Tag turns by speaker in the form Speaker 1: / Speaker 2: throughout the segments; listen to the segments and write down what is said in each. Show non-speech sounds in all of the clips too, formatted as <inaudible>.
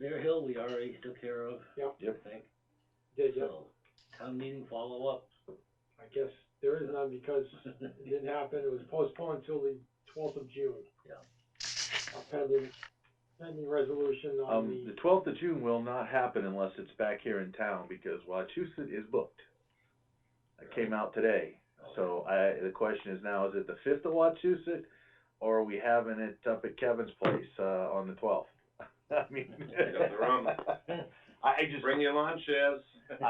Speaker 1: Bear Hill, we already took care of.
Speaker 2: Yep.
Speaker 3: Yep.
Speaker 1: I think,
Speaker 2: Did you?
Speaker 1: so, town meeting <laughs> follow-up.
Speaker 2: I guess there is none because it didn't happen, it was postponed till the twelfth of June.
Speaker 1: Yeah.
Speaker 2: A Pending, pending resolution on
Speaker 3: Um, the
Speaker 2: the,
Speaker 3: twelfth of June will not happen unless it's back here in town, because Wachusett is booked. It came out today, so I, the question is now, is it the fifth of Wachusett, or are we having it up at Kevin's place, uh, on the twelfth? <laughs> I mean.
Speaker 4: Yeah, they're on.
Speaker 3: I, <laughs> I just,
Speaker 4: Bring your lawn chairs.
Speaker 3: I,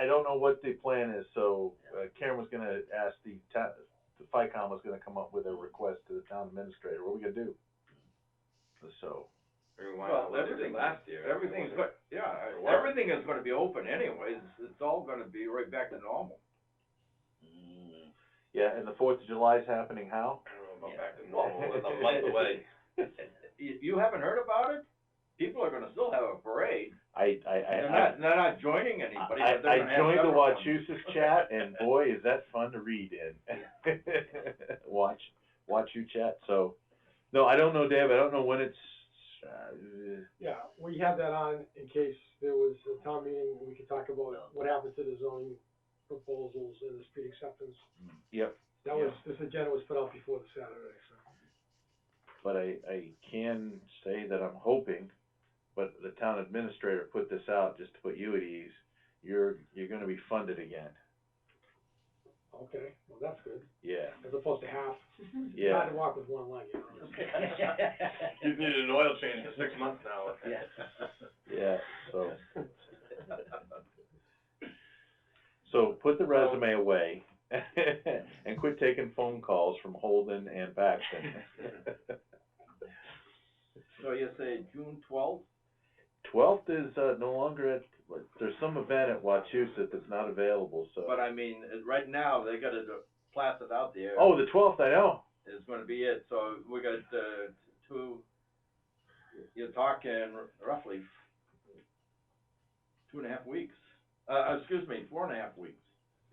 Speaker 3: I, I don't know what the plan is, so uh, Karen was gonna ask the ta- the FICOM was gonna come up with a request to the town administrator, what are we gonna do? So.
Speaker 4: Well, everything, everything's, go- yeah,
Speaker 3: For what?
Speaker 4: everything is gonna be open anyways, it's, it's all gonna be right back to normal.
Speaker 1: Mm,
Speaker 3: Yeah, and the Fourth of July is happening how?
Speaker 4: I don't
Speaker 1: know about back
Speaker 4: to <laughs>
Speaker 3: normal, it's a month away.
Speaker 4: You, you haven't heard about it? People are gonna still have a parade,
Speaker 3: I, I, I.
Speaker 4: they're not, they're not joining anybody,
Speaker 3: I,
Speaker 4: but they're
Speaker 3: I
Speaker 4: gonna have
Speaker 3: joined the
Speaker 4: separate ones.
Speaker 3: Wachusett chat and boy, is that fun to read in. <laughs> Watch, watch you chat, so, no, I don't know, Dave, I don't know when it's, uh,
Speaker 2: yeah, we had that on in case there was a town meeting, we could talk about what happened to the zoning proposals and the street acceptance.
Speaker 3: yep,
Speaker 2: That was, this agenda was put out before the Saturday, so.
Speaker 3: but I, I can say that I'm hoping, but the town administrator put this out just to put you at ease, you're, you're gonna be funded again,
Speaker 2: Okay, well, that's good,
Speaker 3: yeah,
Speaker 2: as opposed to half,
Speaker 3: yeah.
Speaker 2: trying to walk with one leg, you know.
Speaker 4: You've needed an oil change for six months <laughs> now.
Speaker 1: <laughs> Yeah.
Speaker 3: Yeah, so. So put the resume away <laughs> and quit taking phone calls from Holden and Baxton.
Speaker 4: So you say June twelfth?
Speaker 3: Twelfth is, uh, no longer at, there's some event at Wachusett that's not available, so.
Speaker 4: But I mean, it- right now, they got it uh, plastered out there.
Speaker 3: Oh, the twelfth, I know.
Speaker 4: Is gonna be it, so we got, uh, two, you're talking roughly two and a half weeks. Uh, excuse me, four and a half weeks,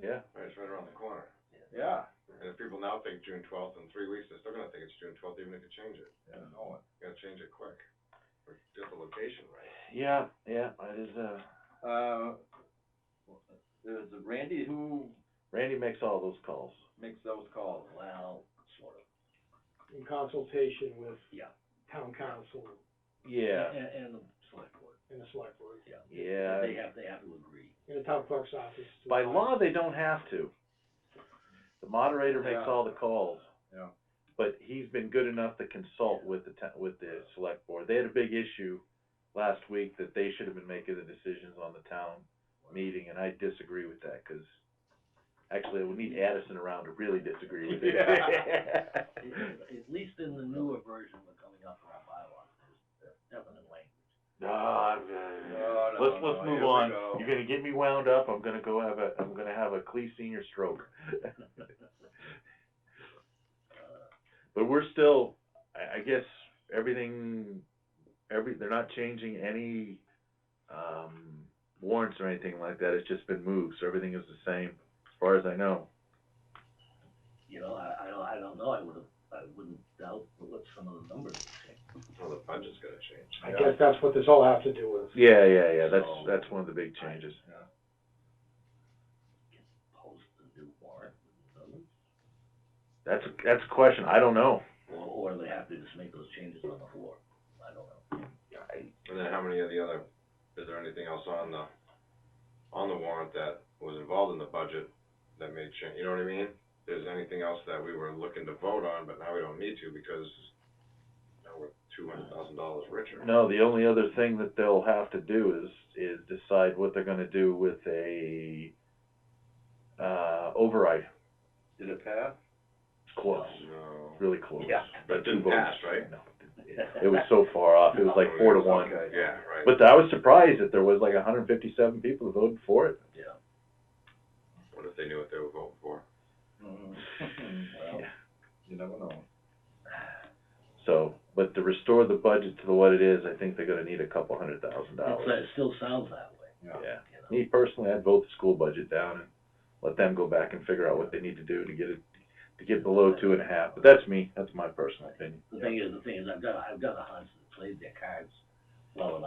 Speaker 3: Yeah,
Speaker 5: Right, It's right around the corner.
Speaker 4: yeah.
Speaker 5: And if people now think June twelfth, in three weeks, they're still gonna think it's June twelfth, even if you change it.
Speaker 4: I know it.
Speaker 5: You gotta change it quick. Or Get the location right.
Speaker 3: yeah, yeah, it is, uh,
Speaker 4: Uh, there's Randy who
Speaker 3: Randy makes all those calls.
Speaker 4: makes those
Speaker 1: <laughs>
Speaker 4: calls.
Speaker 1: Well, sort of,
Speaker 2: in consultation with
Speaker 1: Yeah.
Speaker 2: town council
Speaker 3: Yeah,
Speaker 1: and, and the select board,
Speaker 2: and the select board,
Speaker 1: yeah.
Speaker 3: Yeah.
Speaker 1: They have, they have to agree.
Speaker 2: and the town clerk's office. to
Speaker 3: by
Speaker 2: find-
Speaker 3: law, they don't have to. The moderator makes
Speaker 4: Yeah.
Speaker 3: all the calls.
Speaker 4: Yeah.
Speaker 3: but he's been good enough to consult with the, to- with the select board. They had a big issue last week that they should have been making the decisions on the town meeting, and I disagree with that, cause actually, we'll need Addison around to really disagree with it.
Speaker 4: <laughs> Yeah.
Speaker 1: At least in the newer version we're coming up with our bylaws, there's definite language.
Speaker 3: No, I'm,
Speaker 4: No,
Speaker 3: uh,
Speaker 4: no,
Speaker 3: let's,
Speaker 4: no,
Speaker 3: let's
Speaker 4: here
Speaker 3: move
Speaker 4: we
Speaker 3: on.
Speaker 4: go.
Speaker 3: You're gonna get me wound up, I'm gonna go have a, I'm gonna have a Clee senior stroke. <laughs> But we're still, I, I guess, everything, every, they're not changing any, um, warrants or anything like that, it's just been moved, so everything is the same, as far as I know.
Speaker 1: You know, I, I don't, I don't know, I would've, I wouldn't doubt what some of the numbers would say.
Speaker 5: Well, the budget's gonna change.
Speaker 2: I guess that's what this all has to do with.
Speaker 3: Yeah, yeah, yeah, that's,
Speaker 1: So-
Speaker 3: that's one of the big changes.
Speaker 1: Can post a new warrant with the numbers,
Speaker 3: That's, that's a question, I don't know.
Speaker 1: or, or they have to just make those changes on the floor, I don't know.
Speaker 5: And then how many of the other, is there anything else on the, on the warrant that was involved in the budget that made change, you know what I mean? There's anything else that we were looking to vote on, but now we don't need to because now we're two hundred thousand dollars richer.
Speaker 3: No, the only other thing that they'll have to do is, is decide what they're gonna do with a, uh, override.
Speaker 4: Did it pass?
Speaker 3: Close,
Speaker 5: No.
Speaker 3: really close.
Speaker 1: Yeah.
Speaker 5: But it didn't
Speaker 3: Two votes.
Speaker 5: pass, right?
Speaker 3: No, It was
Speaker 1: <laughs>
Speaker 3: so far off, it was like four to one.
Speaker 5: Okay, yeah, right.
Speaker 3: But I was surprised that there was like hundred and fifty-seven people who voted for it.
Speaker 1: Yeah.
Speaker 5: What if they knew what they were voting for?
Speaker 4: Well, Mm-hmm. you never know.
Speaker 3: So, but to restore the budget to what it is, I think they're gonna need a couple hundred thousand
Speaker 1: It's, uh,
Speaker 3: dollars.
Speaker 1: it still sounds that way,
Speaker 3: Yeah.
Speaker 1: you know?
Speaker 3: Me personally, I'd vote the school budget down and let them go back and figure out what they need to do to get it, to get below two and a half. But that's me, that's my personal opinion.
Speaker 1: The thing is, the thing is, I've got, I've got a hunch that played their cards well enough